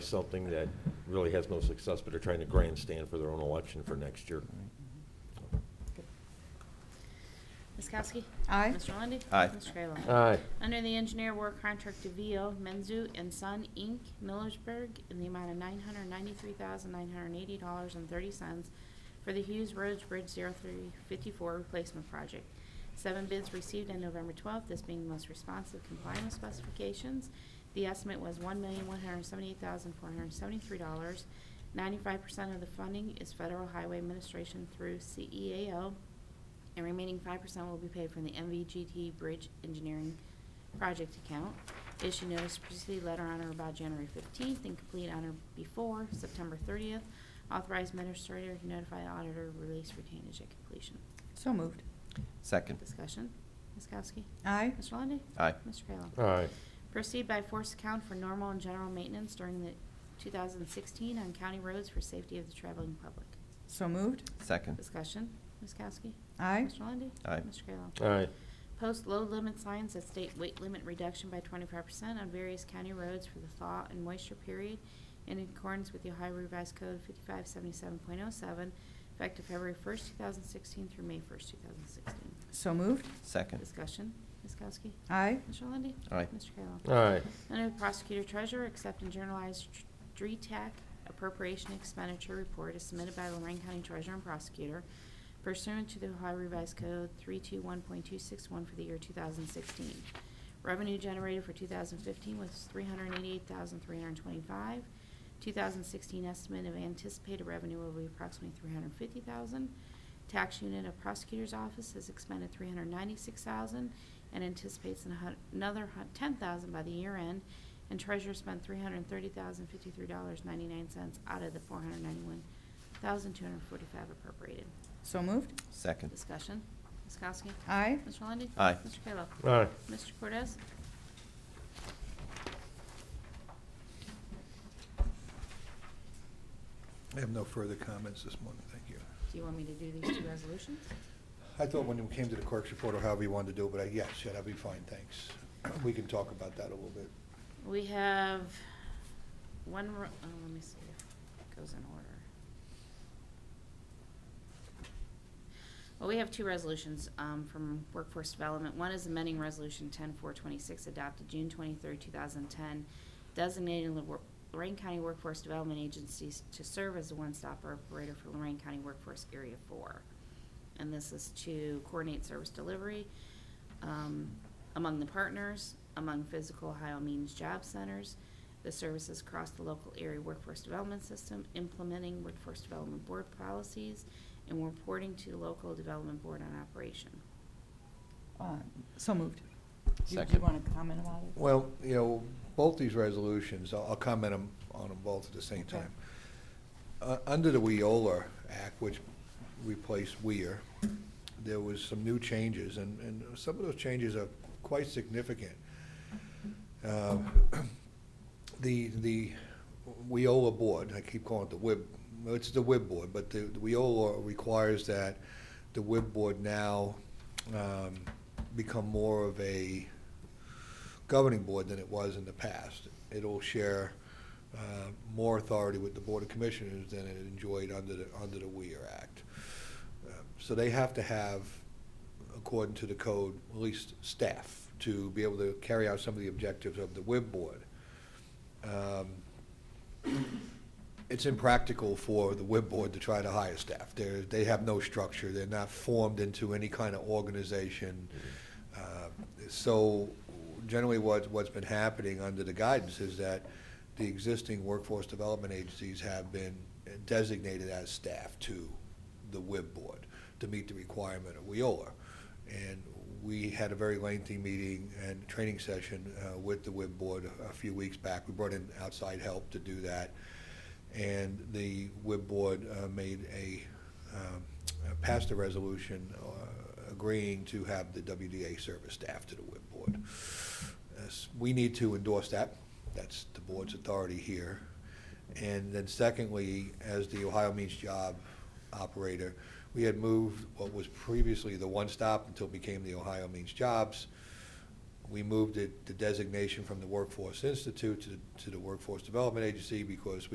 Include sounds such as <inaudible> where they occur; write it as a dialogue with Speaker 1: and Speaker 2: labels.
Speaker 1: something that really has no success, but are trying to grandstand for their own election for next year.
Speaker 2: Ms. Kowski?
Speaker 3: Aye.
Speaker 2: Mr. Lundy.
Speaker 4: Aye.
Speaker 2: Mr. Kayla?
Speaker 1: Aye.
Speaker 2: Under the engineer war contract to VO Menzu and Son, Inc., Millersburg, in the amount of $993,980.30 for the Hughes Roads Bridge 0354 replacement project. Seven bids received on November 12th, this being the most responsive complying with specifications. The estimate was $1,178,473. 95% of the funding is Federal Highway Administration through E CEAO, and remaining five percent will be paid from the MVGT Bridge Engineering Project Account. Issue notice to proceed letter on or about January fifteenth and complete on or before September thirtieth. Authorized administrator to notify auditor, release retainage at completion.
Speaker 3: So moved.
Speaker 4: Second.
Speaker 2: Discussion, Ms. Kowski.
Speaker 3: Aye.
Speaker 2: Mr. Lundey.
Speaker 4: Aye.
Speaker 2: Mr. Kayla.
Speaker 1: Aye.
Speaker 2: Proceed by force account for normal and general maintenance during the two thousand sixteen on county roads for safety of the traveling public.
Speaker 3: So moved.
Speaker 4: Second.
Speaker 2: Discussion, Ms. Kowski.
Speaker 3: Aye.
Speaker 2: Mr. Lundey.
Speaker 4: Aye.
Speaker 2: Mr. Kayla.
Speaker 1: Aye.
Speaker 2: Post load limit signs that state weight limit reduction by twenty-five percent on various county roads for the thaw and moisture period in accordance with the Ohio Revised Code fifty-five seventy-seven point oh seven, effective February first, two thousand sixteen through May first, two thousand sixteen.
Speaker 3: So moved.
Speaker 4: Second.
Speaker 2: Discussion, Ms. Kowski?
Speaker 3: Aye.
Speaker 2: Mr. Lundey?
Speaker 4: Aye.
Speaker 2: Mr. Kayla?
Speaker 1: Aye.
Speaker 2: Under the Prosecutor Treasurer, accept and journalize tr- DRETAC appropriation expenditure report as submitted by Lorraine County Treasurer and Prosecutor pursuant to the Ohio Revised Code 321.261 for the year 2016. Revenue generated for 2015 was 388,325. 2016 estimate of anticipated revenue will be approximately 350,000. Tax unit of prosecutor's office has expended 396,000 and anticipates an hun- another hun- 10,000 by the year end. And treasurer spent $330,053.99 out of the 491,245 appropriated.
Speaker 3: So moved.
Speaker 4: Second.
Speaker 2: Discussion. Ms. Kowski?
Speaker 3: Aye.
Speaker 2: Mr. Lundey?
Speaker 4: Aye.
Speaker 2: Mr. Kayla?
Speaker 1: Aye.
Speaker 2: Mr. Cortez?
Speaker 5: I have no further comments this morning, thank you.
Speaker 2: Do you want me to do these two resolutions?
Speaker 5: I thought when it came to the clerk's report or however you wanted to do it, but I, yes, yeah, that'd be fine, thanks. We can talk about that a little bit.
Speaker 2: We have one, ro- oh, let me see if it goes in order. Well, we have two resolutions um, from Workforce Development. One is amending Resolution 10426 adopted June 23, 2010, designating the Wor- Lorraine County Workforce Development Agencies to serve as a one-stop operator for Lorraine County Workforce Area 4. And this is to coordinate service delivery um, among the partners, among physical Ohio Means Job Centers, the services across the local area workforce development system, implementing workforce development board policies, and reporting to the local development board on operation.
Speaker 3: Uh, So moved. Do you- do you
Speaker 4: Second.
Speaker 3: want to comment about it?
Speaker 5: Well, you know, both these resolutions, I'll I'll comment 'em- on them both at the same
Speaker 3: Okay.
Speaker 5: time. Uh, Under the WIOLA Act, which replaced WIR, there was some new changes, and, and some of those changes are quite significant. Um, <clears throat> The, the WIOLA board, I keep calling it the WIB, well, it's the WIB board, but the the WIOLA requires that the WIB board now um, become more of a governing board than it was in the past. It'll share uh, more authority with the Board of Commissioners than it enjoyed under the, under the Weir Act. Uh, So they have to have, according to the code, at least staff to be able to carry out some of the objectives of the WIB board. Um, it's impractical for the WIB board to try to hire staff. They're, they have no structure, they're not formed into any kind of organization. Uh, So generally what, what's been happening under the guidance is that the existing workforce development agencies have been designated as staff to the WIB board to meet the requirement of WIOLA. And we had a very lengthy meeting and training session uh, with the WIB board a few weeks back. We brought in outside help to do that and the WIB board uh, made a, um, uh, passed a resolution uh, agreeing to have the WDA service staff to the WIB board. Yes, We need to endorse that, that's the board's authority here. And then secondly, as the Ohio Means Job operator, we had moved what was previously the One Stop until it became the Ohio Means Jobs we moved it- the designation from the Workforce Institute to the- to the Workforce Development Agency because we.